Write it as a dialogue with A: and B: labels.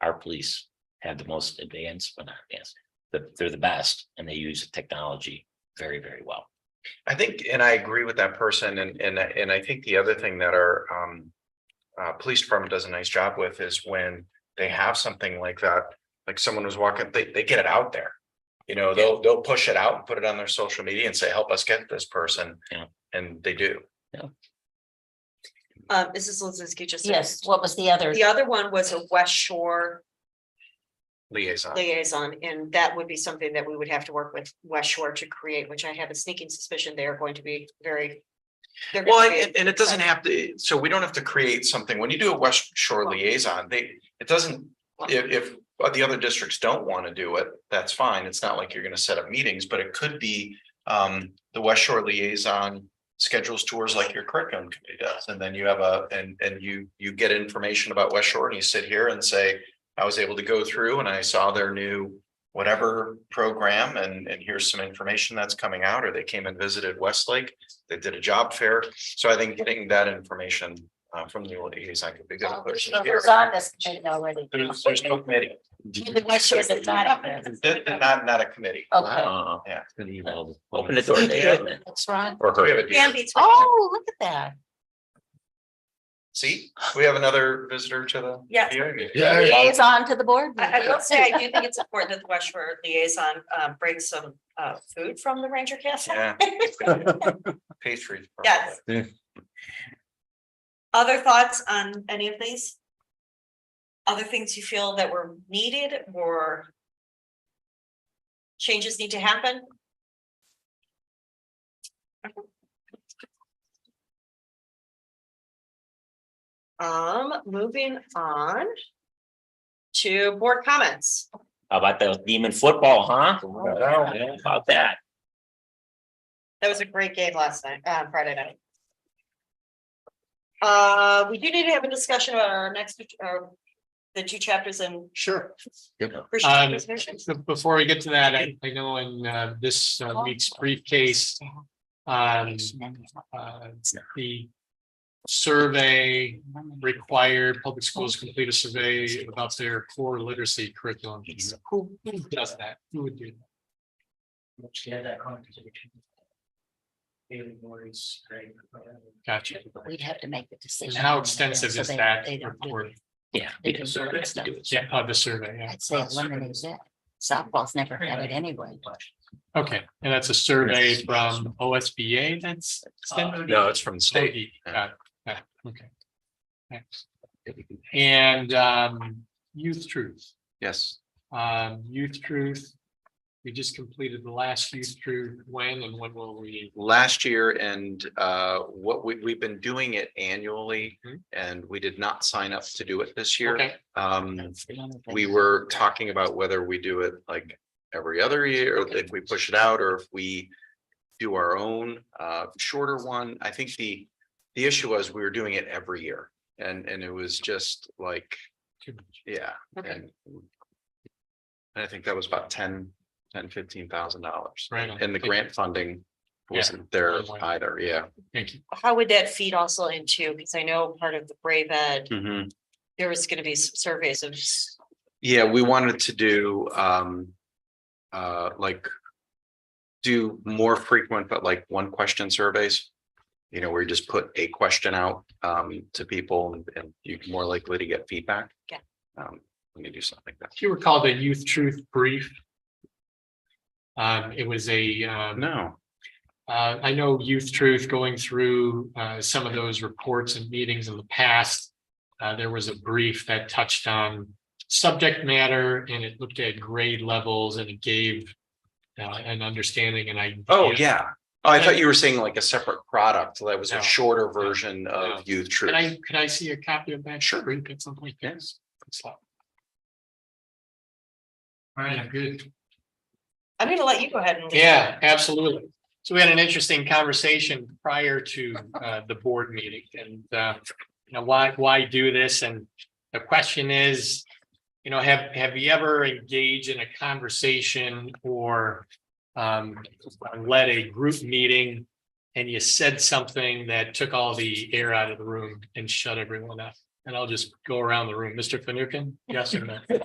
A: our police have the most advanced, but not advanced. They're, they're the best and they use technology very, very well.
B: I think, and I agree with that person, and, and, I- and I think the other thing that our, um. Uh, police department does a nice job with is when they have something like that, like someone was walking, they, they get it out there. You know, they'll, they'll push it out and put it on their social media and say, help us get this person.
A: Yeah.
B: And they do.
C: Uh, Mrs. Lozinski just.
D: Yes, what was the other?
C: The other one was a West Shore
B: Liaison.
C: liaison, and that would be something that we would have to work with West Shore to create, which I have a sneaking suspicion they are going to be very. they're gonna
B: Well,
C: be-
B: and, and it doesn't have to, so we don't have to create something. When you do a West Shore liaison, they, it doesn't, if, if. the other districts don't want to do it, that's fine. It's not like you're gonna set up meetings, but it could be, um, the West Shore liaison. Schedules tours like your curriculum committee does, and then you have a, and, and you, you get information about West Shore and you sit here and say. I was able to go through and I saw their new whatever program and, and here's some information that's coming out, or they came and visited Westlake. They did a job fair, so I think getting that information, uh, from the liaison could be good.
D: Oh, It was on this committee already.
B: There's, there's no committee.
D: Even West Shore is not up there.
B: That- that- Not, not a committee.
D: Okay,
B: Yeah.
A: Uh, Open the door, Dave.
D: that's right.
A: Or
B: We
A: her.
B: have a-
C: Can be-
D: Oh, look at that.
B: See, we have another visitor to the.
C: Yes.
B: Yeah.
D: Liaison to the board.
C: I, I will
D: meeting.
C: say, I do think it's important that the West Shore liaison, uh, brings some, uh, food from the Ranger Castle.
B: Yeah. Patriots.
C: Yes.
E: Yeah.
C: Other thoughts on any of these? Other things you feel that were needed or changes need to happen? Um, moving on to board comments.
A: How about the demon football, huh?
B: No.
A: Yeah, About that.
C: That was a great game last night, uh, Friday night. Uh, we do need to have a discussion about our next, uh, the two chapters in.
F: Sure.
C: Christian
F: Um,
C: preservation.
F: so Before we get to that, I I know in uh, this
D: Oh.
F: uh, week's briefcase, um, uh, the survey required public schools to complete a survey about their core literacy curriculum. Who who does that? Who would do that? Gotcha.
D: We'd have to make the decision.
F: And how
D: on that,
F: extensive
D: so
F: is
D: they-
F: that
D: they don't do
F: report?
D: it.
A: Yeah.
D: They
A: we
D: do
A: do.
D: sort of stuff.
F: Yeah, uh, the survey, yeah.
D: I'd say eliminate that. Softball's never had it anyway.
F: Okay, and that's a survey from OSBA that's. extended?
B: No, it's from the state.
F: State, got it, got it, okay. Thanks. And um, youth truth,
B: Yes.
F: um, youth truth. We just completed the last youth truth, when and when will we?
B: last year and uh what we we've been doing it annually
F: Mhm.
B: and we did not sign up to do it this year.
F: Okay,
B: Um, we were talking about whether we do it like every other year, or if we push it out or if we do our own uh shorter one. I think the the issue was we were doing it every year and and it was just like,
F: too much.
B: yeah.
F: Okay.
B: And and I think that was about ten, ten, fifteen thousand dollars.
F: Right on.
B: And the grant funding
F: Yeah.
B: wasn't there
F: Good one.
B: either, yeah.
F: Thank you.
C: How would that feed also into, because I know part of the Brave Ed,
F: Mm-hmm.
C: there was gonna be some surveys of.
B: Yeah, we wanted to do um uh like do more frequent, but like one question surveys. You know, where you just put a question out um to people and- and you're more likely to get feedback.
C: Yeah.
B: Um, when you do something like that.
F: Do you recall the youth truth brief? Um, it was a um,
B: No,
F: Uh, I know Youth Truth going through, uh, some of those reports and meetings in the past. Uh, there was a brief that touched on subject matter and it looked at grade levels and it gave. Uh, an understanding and I.
B: oh, yeah. Oh, I thought you were saying like a separate product that was
F: No.
B: a shorter version
F: No.
B: of youth
F: Can
B: truth.
F: I, could I see a copy of that?
B: Sure.
F: brief At some point, yes. All right, I'm good.
C: I'm gonna let you go ahead and.
F: Yeah, absolutely. So we had an interesting conversation prior to uh the board meeting and uh, you know, why, why do this? And the question is, you know, have, have you ever engaged in a conversation or um led a group meeting and you said something that took all the air out of the room and shut everyone up? And I'll just go around the room. Mr. Fanukin, yes or no?